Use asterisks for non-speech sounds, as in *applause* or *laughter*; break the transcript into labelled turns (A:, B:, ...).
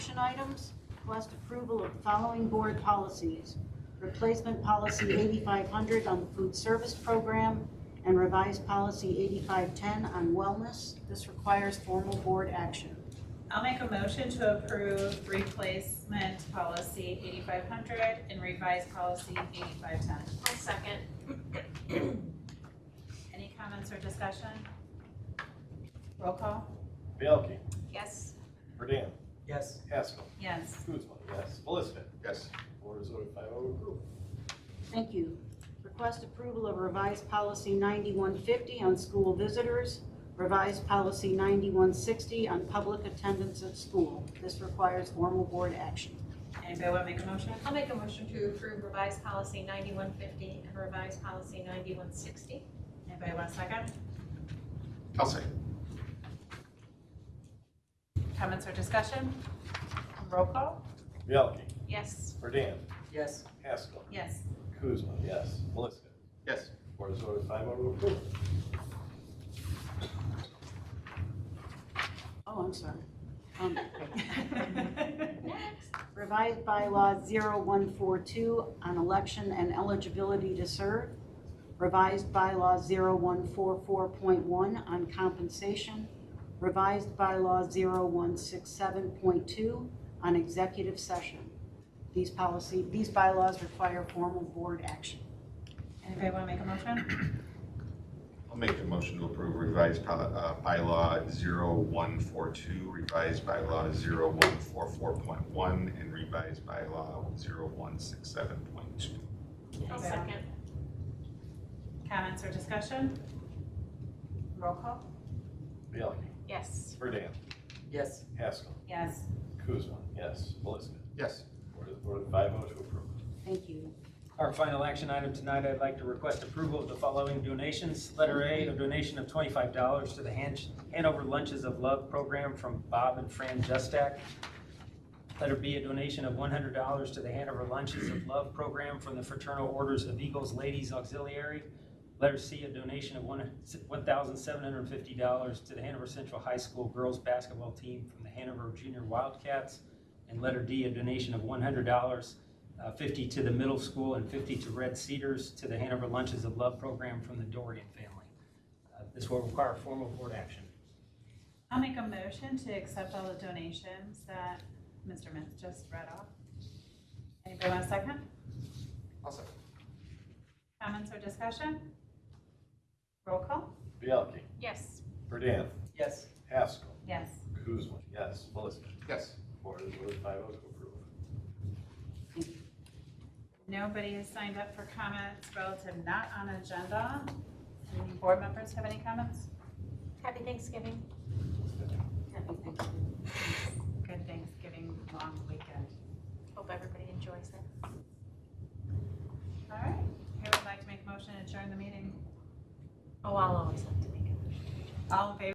A: action items. Request approval of the following board policies. Replacement policy 8500 on the food service program and revised policy 8510 on wellness. This requires formal board action.
B: I'll make a motion to approve replacement policy eighty-five hundred and revised policy eighty-five ten.
C: I'll second.
B: Any comments or discussion? Roll call?
D: Bielke,
C: Yes.
D: Burden,
E: Yes.
D: Haskell,
B: Yes.
D: Kuzma, yes. Melisfit,
F: yes,
D: board is voted five oh approve.
A: Thank you. Request approval of revised policy 9150 on school visitors, revised policy 9160 on public attendance at school. This requires formal board action.
B: Anybody want to make a motion?
C: I'll make a motion to approve revised policy ninety-one fifty and revised policy ninety-one sixty.
B: Anybody want a second?
F: I'll second,
B: Comments or discussion? Roll call?
D: Bielke,
C: Yes.
D: Burden,
E: Yes.
D: Haskell,
B: Yes. *laughs*
D: Kuzma, yes. Melisfit,
F: yes,
D: board is voted five oh approve.
A: Oh, I'm sorry. Um, Revised bylaw 0142 on election and eligibility to serve. Revised bylaw 0144.1 on compensation. Revised bylaw 0167.2 on executive session. These policy, these bylaws require formal board action.
B: Anybody want to make a motion?
F: I'll make a motion to approve revised pol- uh, bylaw 0142, revised bylaw 0144.1, and revised bylaw 0167.2.
C: I'll second.
B: Comments or discussion? Roll call?
D: Bielke,
C: Yes.
D: Burden,
E: Yes.
D: Haskell,
B: Yes.
D: Kuzma, yes. Melisfit,
F: Yes,
D: board is voted five oh to approve.
A: Thank you.
E: Our final action item tonight, I'd like to request approval of the following donations. Letter A, a donation of twenty-five dollars to the Han- Hanover Lunches of Love program from Bob and Fran Justak. Letter B, a donation of one hundred dollars to the Hanover Lunches of Love program from the Fraternal Orders of Eagles Ladies Auxiliary. Letter C, a donation of one thousand seven hundred and fifty dollars to the Hanover Central High School girls basketball team from the Hanover Junior Wildcats. And letter D, a donation of one hundred dollars uh, 50 to the middle school and 50 to Red Cedars to the Hanover Lunches of Love program from the Dorian family. Uh, This will require formal board action.
B: I'll make a motion to accept all the donations that Mr. Mintz just read off. Anybody want a second?
F: I'll second,
B: Comments or discussion? Roll call?
D: Bielke,
C: Yes.
D: Burden,
E: Yes.
D: Haskell,
B: Yes.
D: Kuzma, yes. Melisfit,
F: yes.
D: board is voted five oh to approve.
B: Nobody has signed up for comments relative not on agenda. Any board members have any comments?
C: Happy Thanksgiving.
A: Happy Thanksgiving.
B: Good Thanksgiving, long weekend.
C: Hope everybody enjoys it.
B: All right, who would like to make a motion to adjourn the meeting?
C: Oh, I'll always have to make a motion.
B: All in favor?